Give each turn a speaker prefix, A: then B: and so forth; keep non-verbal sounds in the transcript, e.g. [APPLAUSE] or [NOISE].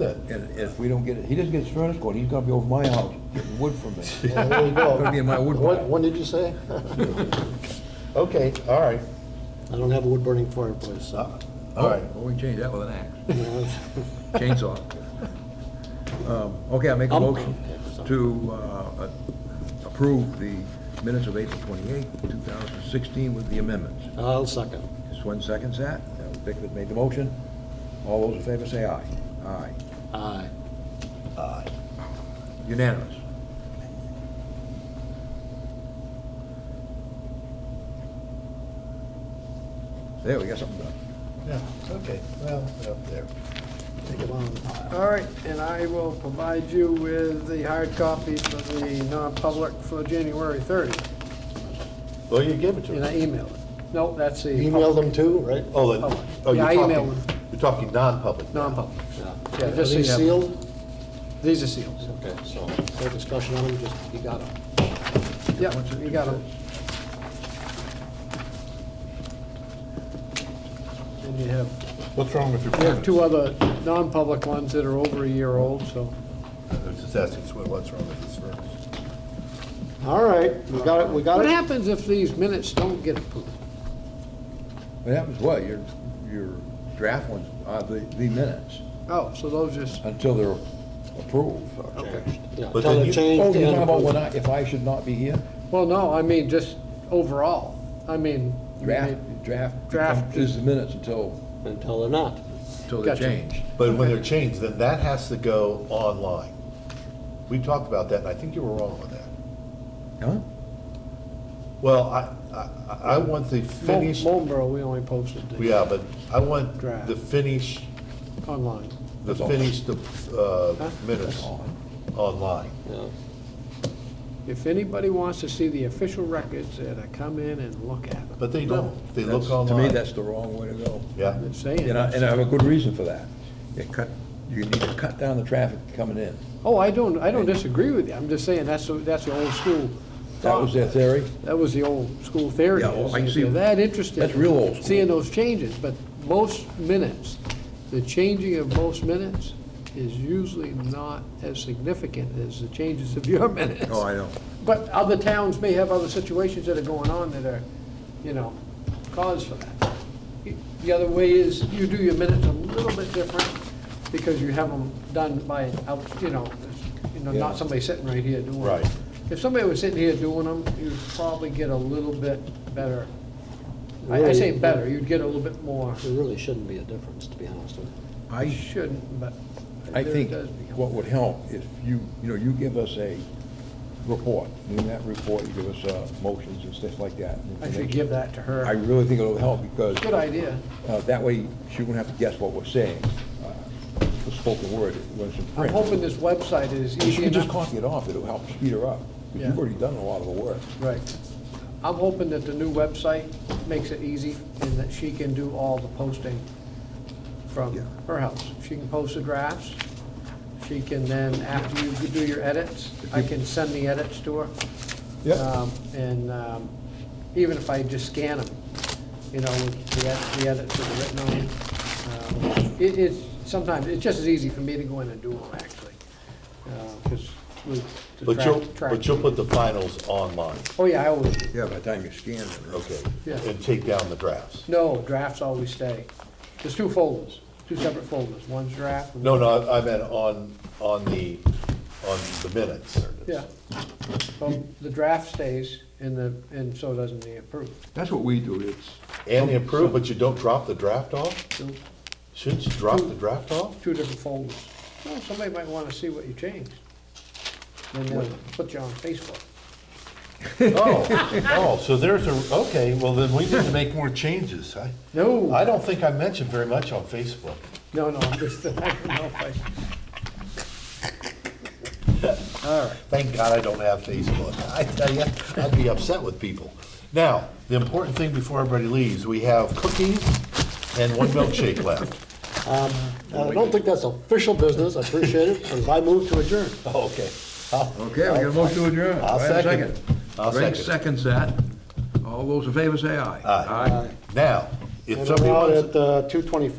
A: that.
B: And if we don't get it, he doesn't get his furnace going, he's gonna be over my house getting wood from me.
A: Well, there you
B: [LAUGHS]
A: go.
B: Gonna be in my wood
A: What-
B: pile.
A: When did you say? [LAUGHS] Okay, all right.
C: I don't have a wood burning fireplace, so.
B: Oh,
A: All right.
B: Well, we can change that with an axe,
C: you know,
B: [LAUGHS] chainsaw. Um, Okay, I make a
C: Um,
B: motion to uh, approve the minutes of April twenty-eighth, two thousand sixteen with the amendments.
C: I'll second.
B: Swin seconds that. Bickford made the motion. All those in favor say aye. Aye.
C: Aye.
A: Aye.
B: Unanimous. There, we got something done.
A: Yeah, okay, well, up there.
C: Take it on.
D: All right, and I will provide you with the hard copy for the non-public for January 30,
A: Well, you gave it to
D: and I
A: us.
D: emailed it. No, that's the.
C: Email them too, right?
A: Oh, that-
D: Public.
A: oh,
D: Yeah,
A: you're
D: I
A: talking,
D: emailed them.
A: you're talking non-public.
D: Non-public.
C: Are
D: Yeah, just so
C: they
D: you have-
C: sealed?
D: These are seals.
C: Okay, so, no discussion on them, just, you got them.
D: Yep, you got them. And you have,
E: What's wrong with your
D: you
E: permits?
D: have two other non-public ones that are over a year old, so.
A: I was just asking Swin what's wrong with this first.
C: All right, we got it, we got
D: What
C: it.
D: happens if these minutes don't get approved?
B: What happens, well, your, your draft ones are the, the minutes
D: Oh, so those just,
B: until they're approved. Oh,
C: Yeah,
A: But
C: tell
A: then
C: them
A: you-
C: change.
B: you're
C: and
B: Oh, talking about
C: approve.
B: when I, if I should not be here?
D: well, no, I mean, just overall. I mean.
B: Draft, draft.
D: Draft.
B: becomes- Is the minutes until,
C: Until they're not.
B: until they're
D: Gotcha.
B: changed.
A: But when they're changed, then that has to go online. We talked about that, and I think you were wrong on that.
B: Huh?
A: Well, I, I, I want the finished,
D: Marlboro, we only posted the
A: yeah, but I want
D: Draft.
A: the finish,
D: online.
A: the
B: That's all.
A: finished, uh,
D: Huh?
A: minutes online.
C: Yeah.
D: If anybody wants to see the official records, that I come in and look at them.
A: But they don't, they look
B: That's-
A: online.
B: To me, that's the wrong way to go.
A: Yeah,
D: I'm saying.
B: And I, and I have a good reason for that. It cut, you need to cut down the traffic coming in.
D: Oh, I don't, I don't disagree with you. I'm just saying, that's, the- that's the old school.
B: That was their theory.
D: That was the old school theory.
B: Yeah, oh, I
D: is
B: see.
D: If you're that interested.
B: That's real old school.
D: Seeing those changes, but most minutes, the changing of most minutes is usually not as significant as the changes of your [LAUGHS] minutes.
B: Oh, I know.
D: But other towns may have other situations that are going on that are, you know, cause for that. The other way is you do your minutes a little bit different because you have them done by, an out you know, you know,
B: Yeah.
D: not somebody sitting right here doing
A: Right.
D: it. If somebody was sitting here doing them, you'd probably get a little bit better. I I say
C: Really?
D: better, you'd get a little bit more.
C: There really shouldn't be a difference, to be honest with you.
D: You
B: I,
D: shouldn't, but
B: I
D: there
B: think
D: does become-
B: what would help if you, you know, you give us a report. In that report, you give us uh, motions and stuff like that.
D: I should give that to
B: I
D: her.
B: really think it'll help because.
D: Good idea.
B: uh, That way, she won't have to guess what we're saying. Uh, The spoken word, when it's in
D: I'm
B: print.
D: hoping this website is
B: If you
D: easy
B: can
D: enough.
B: just copy it off, it'll help speed her up. 'Cause You've
D: Yeah.
B: already done a lot of the work.
D: Right. I'm hoping that the new website makes it easy and that she can do all the posting from
B: Yeah.
D: her house. She can post the drafts. She can then, after you do your edits, I can send the edits to her. Um, And um, even if I just scan them, you know, with the ed- the edits that are written on them. um, It, it's, sometimes, it's just as easy for me to go in and do them, actually. Because with the
A: but you'll,
D: track. track-
A: but you'll put the finals online,
D: Oh, yeah, I always do.
B: Yeah, by the time you scan it.
A: okay?
D: Yeah.
A: And take down the drafts.
D: No, drafts always stay. There's two folders, two separate folders. One's draft. and-
A: No, no, I I meant on, on the, on the minutes.
D: Yeah. Well, the draft stays and the, and so doesn't the approved.
B: That's what we do, it's,
A: And the approved, but you don't drop the draft off?
D: Two,
A: Shouldn't you drop the draft off?
D: [LAUGHS] two different folders. Well, somebody might want to see what you changed. Then they'll put you on Facebook.
A: Oh, oh, so there's a, okay, well, then we need to make more changes. I, I
D: No,
A: don't think I mentioned very much on Facebook.
D: no, no, I'm just, [LAUGHS] I don't know if I-
A: Thank God I don't have Facebook. I tell you, I'd be upset with people. Now, the important thing before everybody leaves, we have cookies and one milkshake left.
C: Uh, I don't think that's official business, I appreciate it, but I move to adjourn.
A: Okay.
B: okay, we got a motion to adjourn.
A: I'll
B: Do I have a
A: second it. I'll
B: Frank
A: second it.
B: seconds that. All those in favor say aye.
A: Aye. Now, if
C: And
A: somebody
C: we're out
A: wants.
C: at uh, 2:25.